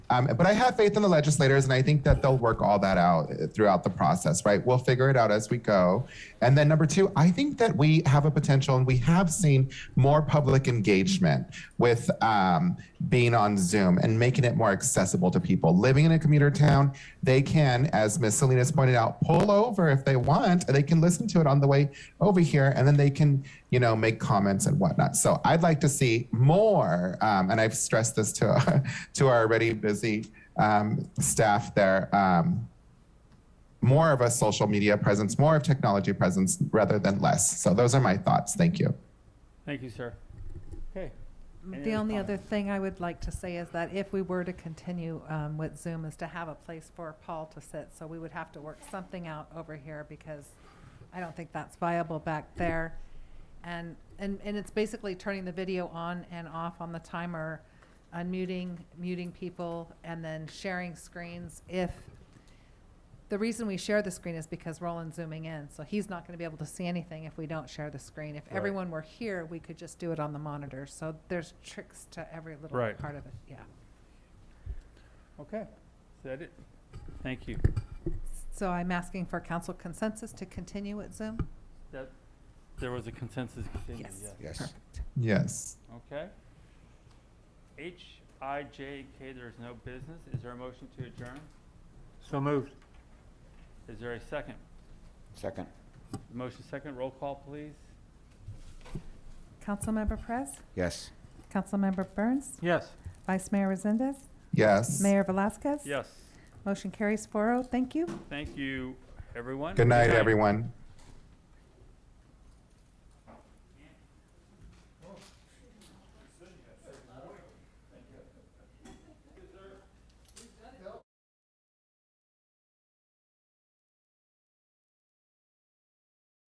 Um, but I have faith in the legislators, and I think that they'll work all that out uh, throughout the process, right? We'll figure it out as we go. And then number two, I think that we have a potential, and we have seen more public engagement with um, being on Zoom and making it more accessible to people. Living in a commuter town, they can, as Ms. Salinas pointed out, pull over if they want, and they can listen to it on the way over here, and then they can, you know, make comments and whatnot. So I'd like to see more, um, and I've stressed this to to our already busy um, staff there. Um, more of a social media presence, more of technology presence rather than less. So those are my thoughts. Thank you. Thank you, sir. Okay. Any The other only other comments? thing I would like to say is that if we were to continue um, with Zoom is to have a place for Paul to sit. So we would have to work something out over here because I don't think that's viable back there. And, and, and it's basically turning the video on and off on the timer, unmuting, muting people, and then sharing screens if the reason we share the screen is because Roland's zooming in, so he's not going to be able to see anything if we don't share the screen. If Right. everyone were here, we could just do it on the monitor. So there's tricks to every little Right. part of it. Yeah. Okay, is that it? Thank you. So I'm asking for council consensus to continue at Zoom. That, there was a consensus continued, Yes. yes. Yes. Perfect. Yes. Okay. H I J K, there is no business. Is there a motion to adjourn? So moved. Is there a second? Second. Motion second, roll call, please. Councilmember Perez, Yes. Councilmember Burns, Yes. Vice Mayor Resendez, Yes. Mayor Velazquez. Yes. Motion carries 4-0. Thank you. Thank you, everyone. Good night, everyone.